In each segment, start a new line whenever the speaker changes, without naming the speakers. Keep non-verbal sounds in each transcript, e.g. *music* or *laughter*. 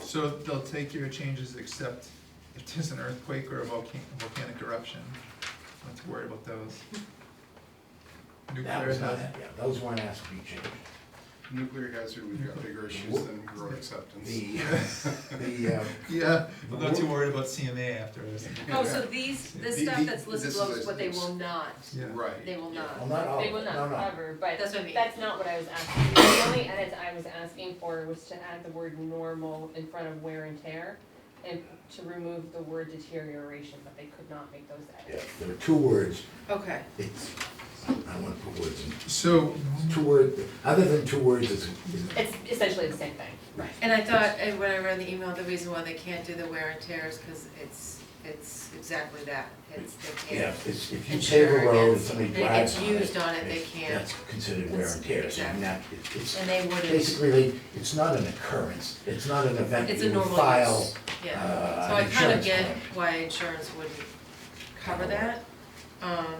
So they'll take your changes except if there's an earthquake or a volcanic, volcanic eruption, not to worry about those.
That
Nuclear
was not,
hazard,
yeah, those weren't asked to be changed.
Nuclear hazard, we've got bigger issues than road acceptance.
The, *laughs* the, uh,
yeah, I'm not too worried about CMA after this.
Oh, so these, this
The-
stuff
the-
that's listed
this
below
is
is what they
a-
will not,
Yeah.
Right.
they will not.
well, not all, of
They will
it. Oh, no,
not
no.
cover, but
That's what I mean.
that's not what I was asking. The only edits I was asking for was to add the word normal in front of wear and tear and to remove the word deterioration, but they could not make those
Yeah,
edits.
there are two words,
Okay.
it's, I want to put words in,
So,
two words, other than two words is, is,
It's essentially the same thing.
And I thought, and when I read the email, the reason why they can't do the wear and tear is because it's, it's exactly that, it's, they
yeah,
can't.
it's, if you pave
Insure
a road and
against-
somebody
and it gets
drives on it.
used on it, they
it's-
can't.
That's considered wear and tear, so
Exactly.
not, it's- it's,
And they wouldn't,
basically, it's not an occurrence, it's not an event
it's
you
a
would
normal
file.
use, yeah.
uh,
So I
an
kind of
insurance
get
claim.
why insurance wouldn't cover that. Um,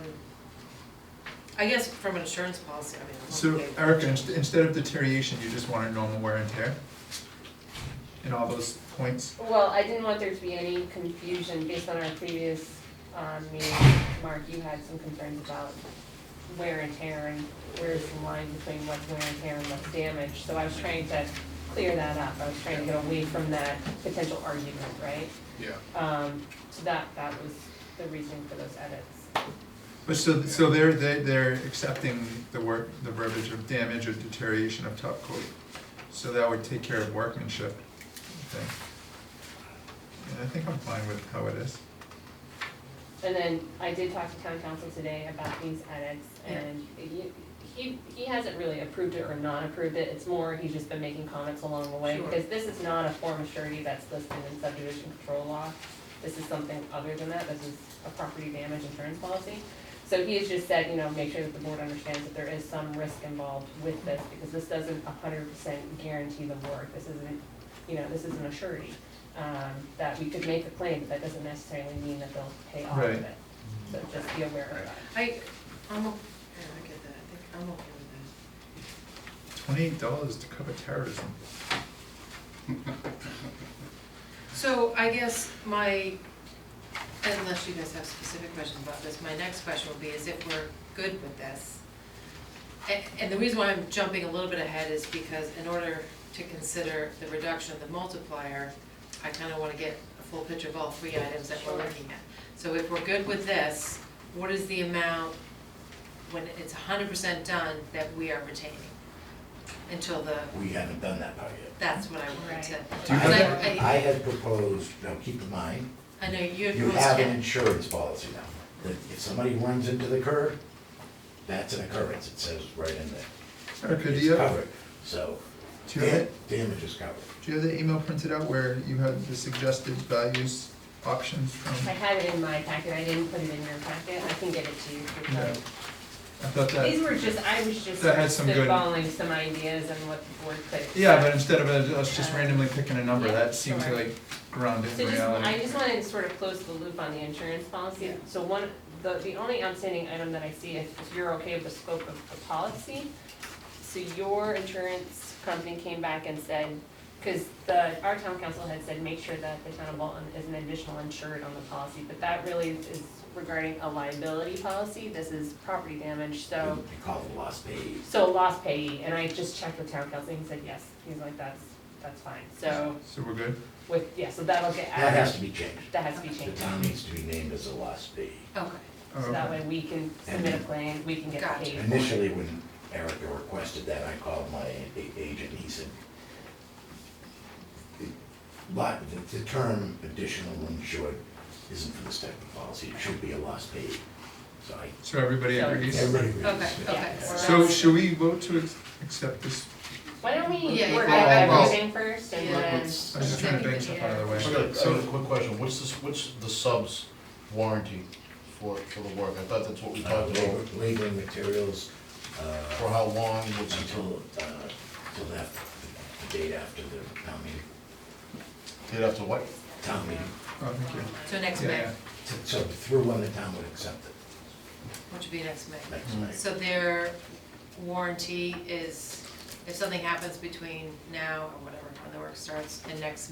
I guess from an insurance policy, I mean, I don't
so
think they-
Erica, inst- instead of deterioration, you just want a normal wear and tear? In all those points?
Well, I didn't want there to be any confusion based on our previous, um, meeting. Mark, you had some concerns about wear and tear and where's the line between what's wear and tear and what's damage. So I was trying to clear that up. I was trying to get away from that potential argument, right?
Yeah,
Um, so that, that was the reason for those edits.
But so, so they're, they they're accepting the work, the verbiage of damage or deterioration of top coat. So that would take care of workmanship, I think. And I think I'm fine with how it is.
And then I did talk to town council today about these edits and he- he, he hasn't really approved it or not approved it. It's more, he's just been making comments along the way.
Sure.
Because this is not a form of surety that's listed in subdivision control law. This is something other than that. This is a property damage insurance policy. So he has just said, you know, make sure that the board understands that there is some risk involved with this because this doesn't hundred percent guarantee the work. This isn't, you know, this isn't a surety. Um, that we could make a claim, but that doesn't necessarily mean that they'll pay off
Right.
of it. So just be aware of that.
I, I'm, o- yeah, I get that, I think I'm okay with
Twenty-eight dollars to cover terrorism.
*laughs*
that. So I guess my, unless you guys have specific questions about this, my next question will be is if we're good with this. And, and the reason why I'm jumping a little bit ahead is because in order to consider the reduction of the multiplier, I kinda wanna get a full picture of all three items that we're
Sure.
looking at. So if we're good with this, what is the amount when it's hundred percent done that we are retaining? Until the,
We haven't done that part yet.
that's what I wanted to.
Do you
Because
have-
I- I-
I had proposed, now keep in mind,
I know you had
you have an
posted,
insurance policy now, that if somebody runs into the curb, that's an occurrence, it says right in there.
Erica, do
It's
you have,
covered, so,
do you have,
dam- damage is covered.
do you have the email printed out where you had the suggested values options from?
I had it in my packet, I didn't put it in your packet, I can get it to you. through
Yeah.
phone.
I thought
These
that,
were just, I was just
That had some good-
spitballing some ideas and what the board could.
yeah, but instead of us just
Uh,
randomly picking a number,
yeah,
that seems
sure.
like grounded
So
in
just, I
reality.
just wanted to sort of close the loop on the insurance policy.
Yeah.
So one, the, the only outstanding item that I see, if if you're okay with the scope of the policy, so your insurance company came back and said, because the, our town council had said, make sure that the town of Bolton is an additional insured on the policy, but that really is regarding a liability policy, this is property damage, so.
They call it lost pay.
So lost payee, and I just checked with town council, he said yes, he's like, that's, that's fine, so
So we're good?
with, yeah, so that'll get
That has
added,
to be changed.
that has to be
The
changed.
town needs to be named as a lost pay.
okay,
Oh,
So that
okay.
way we can submit a claim, we can get
Gotcha.
paid. for it.
Initially, when Erica requested that, I called my a- agent, he said, "Lot- the, the term additional insured isn't for this type of policy, it should be a lost paid. So I,
So everybody
So-
agrees?
everybody agrees.
okay,
Yeah.
okay.
Yeah.
So should we vote to ex- accept this?
Why don't we
Yeah,
work
yeah.
out
Well-
everything first and
Yeah.
then,
I was just trying to bang
Yeah.
stuff out of the way.
Okay, so, quick question, what's this, what's the subs warranty for, for the work? I thought that's what we
Uh,
talked about,
labor- Labor and materials,
for
uh,
how long, what's until,
until, uh, till that, the date after the town meeting,
they'd have to what?
town meeting,
Oh, thank you.
So next
Yeah,
May,
yeah.
So- so through when the town would accept it,
which would be next May.
next
Mm.
May.
So their warranty is, if something happens between now or whatever, when the work starts, and next